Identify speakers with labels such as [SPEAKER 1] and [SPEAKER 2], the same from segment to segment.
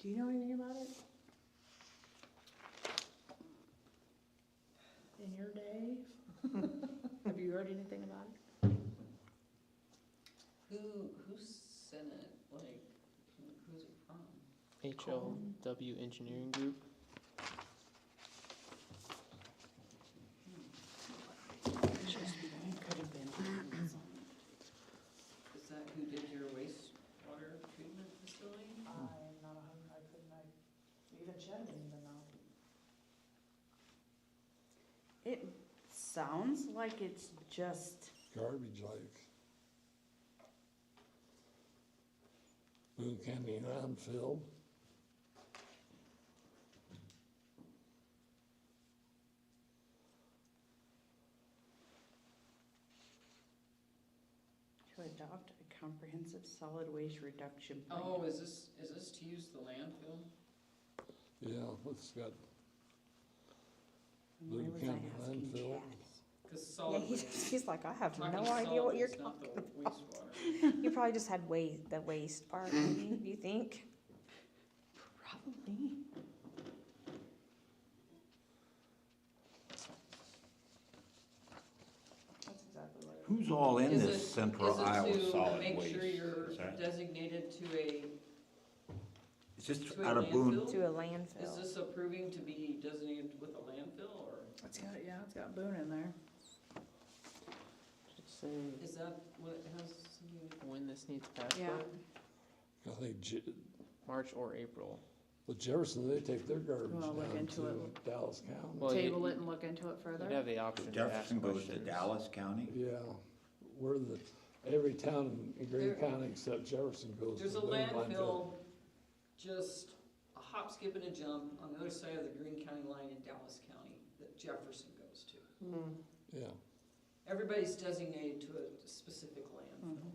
[SPEAKER 1] Do you know anything about it? In your day? Have you heard anything about it?
[SPEAKER 2] Who, who sent it, like, who- who's it from?
[SPEAKER 3] HLW Engineering Group.
[SPEAKER 1] It could have been.
[SPEAKER 2] Is that who did your wastewater treatment facility?
[SPEAKER 1] I'm not a hundred, I couldn't, I, even Chad didn't even know.
[SPEAKER 4] It sounds like it's just,
[SPEAKER 5] garbage like. Boone County landfill,
[SPEAKER 4] to adopt a comprehensive solid waste reduction plan.
[SPEAKER 2] Oh, is this, is this to use the landfill?
[SPEAKER 5] yeah, it's got,
[SPEAKER 4] And Why
[SPEAKER 5] Luke
[SPEAKER 4] was I
[SPEAKER 5] County
[SPEAKER 4] asking
[SPEAKER 5] landfill.
[SPEAKER 4] Chad?
[SPEAKER 2] Cause
[SPEAKER 6] Yeah,
[SPEAKER 2] solid
[SPEAKER 6] he's,
[SPEAKER 2] waste.
[SPEAKER 6] he's like, I have
[SPEAKER 2] We're
[SPEAKER 6] no
[SPEAKER 2] talking
[SPEAKER 6] idea what
[SPEAKER 2] solid
[SPEAKER 6] you're
[SPEAKER 2] waste, not the
[SPEAKER 6] talking about.
[SPEAKER 2] Wastewater.
[SPEAKER 6] You probably just had waste, the waste part,
[SPEAKER 3] Mm.
[SPEAKER 6] maybe, you think?
[SPEAKER 4] Probably.
[SPEAKER 1] That's exactly what it
[SPEAKER 7] Who's all in
[SPEAKER 2] Is
[SPEAKER 7] this
[SPEAKER 2] it-
[SPEAKER 7] Central
[SPEAKER 2] is it
[SPEAKER 7] Iowa
[SPEAKER 2] to
[SPEAKER 7] Solid
[SPEAKER 2] Make sure
[SPEAKER 7] Waste?
[SPEAKER 2] you're
[SPEAKER 7] Is that-
[SPEAKER 2] designated to a,
[SPEAKER 7] It's just
[SPEAKER 2] to a
[SPEAKER 7] out of Boone,
[SPEAKER 2] landfill?
[SPEAKER 6] To a
[SPEAKER 2] Is
[SPEAKER 6] landfill.
[SPEAKER 2] this approving to be designated with a landfill, or
[SPEAKER 1] It's got, yeah, it's got Boone in there.
[SPEAKER 3] Should say
[SPEAKER 2] is that what it has something to do?
[SPEAKER 3] when this needs passed,
[SPEAKER 4] Yeah.
[SPEAKER 3] but
[SPEAKER 5] I think, Je-
[SPEAKER 3] March or April.
[SPEAKER 5] well Jefferson, they take their garbage
[SPEAKER 1] Well, look
[SPEAKER 5] down
[SPEAKER 1] into
[SPEAKER 5] to
[SPEAKER 1] it.
[SPEAKER 5] Dallas County.
[SPEAKER 3] Well, you-
[SPEAKER 1] Table it and look into it further.
[SPEAKER 3] You'd have the option to ask
[SPEAKER 7] Jefferson goes to
[SPEAKER 3] questions.
[SPEAKER 7] Dallas County.
[SPEAKER 5] Yeah, we're the, every town in Green
[SPEAKER 2] There-
[SPEAKER 5] County except Jefferson goes to
[SPEAKER 2] There's a
[SPEAKER 5] Boone landfill.
[SPEAKER 2] landfill, just a hop, skip, and a jump on the other side of the Green County line in Dallas County that Jefferson goes to.
[SPEAKER 5] Yeah,
[SPEAKER 2] Everybody's designated to a specific
[SPEAKER 1] Mm-hmm.
[SPEAKER 2] landfill.
[SPEAKER 3] Mm-hmm.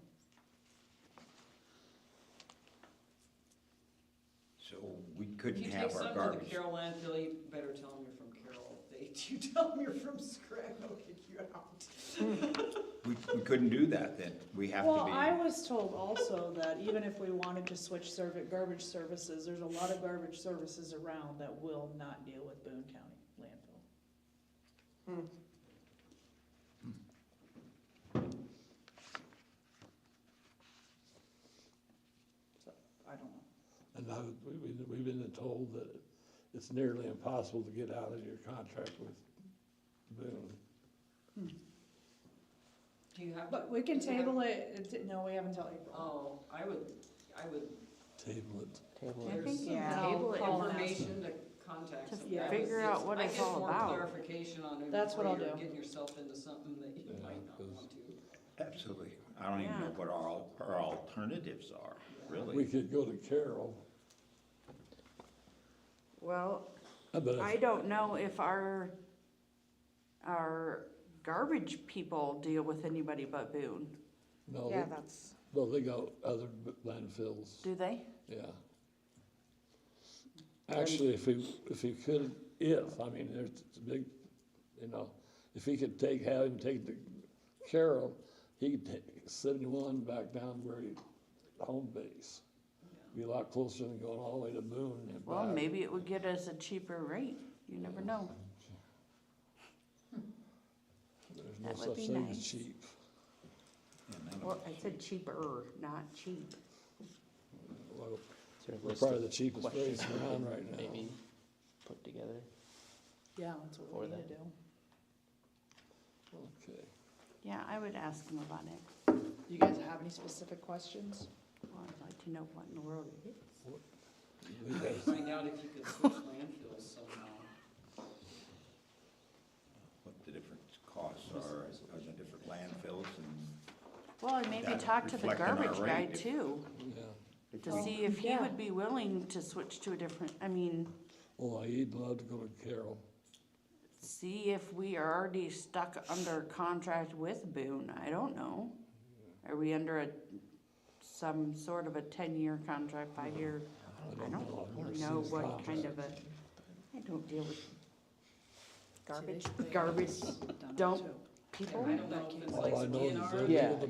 [SPEAKER 7] So we
[SPEAKER 2] If
[SPEAKER 7] couldn't
[SPEAKER 2] you take
[SPEAKER 7] have our
[SPEAKER 2] some to the
[SPEAKER 7] garbage.
[SPEAKER 2] Carroll landfill, you better tell them you're from Carroll. If you tell them you're from Scranton, they'll kick you out.
[SPEAKER 7] We, we couldn't do that then. We have
[SPEAKER 1] Well, I
[SPEAKER 7] to
[SPEAKER 1] was told also that even if we wanted to switch serv garbage services, there's a lot of garbage services around that will not deal with Boone County landfill. So, I don't know.
[SPEAKER 5] and I, we, we- we've been told that it's nearly impossible to get out of your contract with Boone.
[SPEAKER 2] Do you have?
[SPEAKER 1] But we can table it, it- no, we haven't till April.
[SPEAKER 2] Oh, I would, I would,
[SPEAKER 5] Table it.
[SPEAKER 3] Table
[SPEAKER 4] I
[SPEAKER 3] it.
[SPEAKER 2] there's
[SPEAKER 4] think you
[SPEAKER 2] some
[SPEAKER 4] table it and ask-
[SPEAKER 2] information to contact
[SPEAKER 4] to
[SPEAKER 2] some guy.
[SPEAKER 4] figure out what it's all about.
[SPEAKER 2] I guess more clarification on it
[SPEAKER 1] That's what
[SPEAKER 2] before
[SPEAKER 1] I'll
[SPEAKER 2] you're
[SPEAKER 1] do.
[SPEAKER 2] getting yourself into something that you
[SPEAKER 5] Yeah,
[SPEAKER 2] might not
[SPEAKER 5] 'cause-
[SPEAKER 2] want to.
[SPEAKER 7] be, absolutely. I don't even know
[SPEAKER 4] Yeah.
[SPEAKER 7] what our, al- our alternatives are,
[SPEAKER 5] We
[SPEAKER 7] really.
[SPEAKER 5] could go to Carroll.
[SPEAKER 4] Well,
[SPEAKER 5] I bet
[SPEAKER 4] I
[SPEAKER 5] if-
[SPEAKER 4] don't know if our, our garbage people deal with anybody but Boone,
[SPEAKER 5] no,
[SPEAKER 6] Yeah,
[SPEAKER 5] Oh, they-
[SPEAKER 6] that's,
[SPEAKER 5] no, they got other b- landfills,
[SPEAKER 4] do they?
[SPEAKER 5] yeah. Actually, if he, if he could, if, I mean, there's a big, you know, if he could take, have him take the Carroll, he could take seventy-one back down where he, home base. Be a lot closer than going all the way to Boone and
[SPEAKER 4] Well,
[SPEAKER 7] Uh,
[SPEAKER 5] back.
[SPEAKER 4] maybe it would get us a cheaper rate, you never know.
[SPEAKER 5] There's no
[SPEAKER 4] that would
[SPEAKER 5] such
[SPEAKER 4] be
[SPEAKER 5] thing as
[SPEAKER 4] nice.
[SPEAKER 5] cheap.
[SPEAKER 7] And then-
[SPEAKER 4] Well, I said cheaper, not cheap.
[SPEAKER 5] Well,
[SPEAKER 3] Is there a
[SPEAKER 5] We're
[SPEAKER 3] list
[SPEAKER 5] probably
[SPEAKER 3] of
[SPEAKER 5] the cheapest rates
[SPEAKER 3] questions we
[SPEAKER 5] around
[SPEAKER 3] could
[SPEAKER 5] right now.
[SPEAKER 3] Maybe put together.
[SPEAKER 1] Yeah, that's what
[SPEAKER 3] Or
[SPEAKER 1] we need
[SPEAKER 3] that.
[SPEAKER 1] to do.
[SPEAKER 5] Okay.
[SPEAKER 4] Yeah, I would ask them about it.
[SPEAKER 1] Do you guys have any specific questions?
[SPEAKER 4] Well, I'd like to know what in the world it is.
[SPEAKER 5] We got-
[SPEAKER 2] Find out if you could switch landfills somehow.
[SPEAKER 7] What the different costs are, are the different landfills and
[SPEAKER 4] Well, and maybe
[SPEAKER 7] That
[SPEAKER 4] talk to the
[SPEAKER 7] reflect on our
[SPEAKER 4] garbage guy
[SPEAKER 7] rate.
[SPEAKER 4] too,
[SPEAKER 5] Yeah.
[SPEAKER 4] to see if he
[SPEAKER 1] Yeah.
[SPEAKER 4] would be willing to switch to a different, I mean,
[SPEAKER 5] Well, he'd love to go to Carroll.
[SPEAKER 4] see if we are already stuck under contract with Boone, I don't know. Are we under a, some sort of a ten-year contract, five-year, I don't
[SPEAKER 5] know. I've never
[SPEAKER 4] really
[SPEAKER 5] seen
[SPEAKER 4] know
[SPEAKER 5] his
[SPEAKER 4] what kind
[SPEAKER 5] contract.
[SPEAKER 4] of a, I don't deal with
[SPEAKER 1] See, they-
[SPEAKER 4] garbage,
[SPEAKER 1] they-
[SPEAKER 4] garbage
[SPEAKER 1] Done it
[SPEAKER 4] dump
[SPEAKER 1] too.
[SPEAKER 4] people.
[SPEAKER 2] I don't know if it's
[SPEAKER 5] All I
[SPEAKER 2] like
[SPEAKER 5] know is
[SPEAKER 2] DNR.
[SPEAKER 5] they
[SPEAKER 3] Yeah.
[SPEAKER 5] do the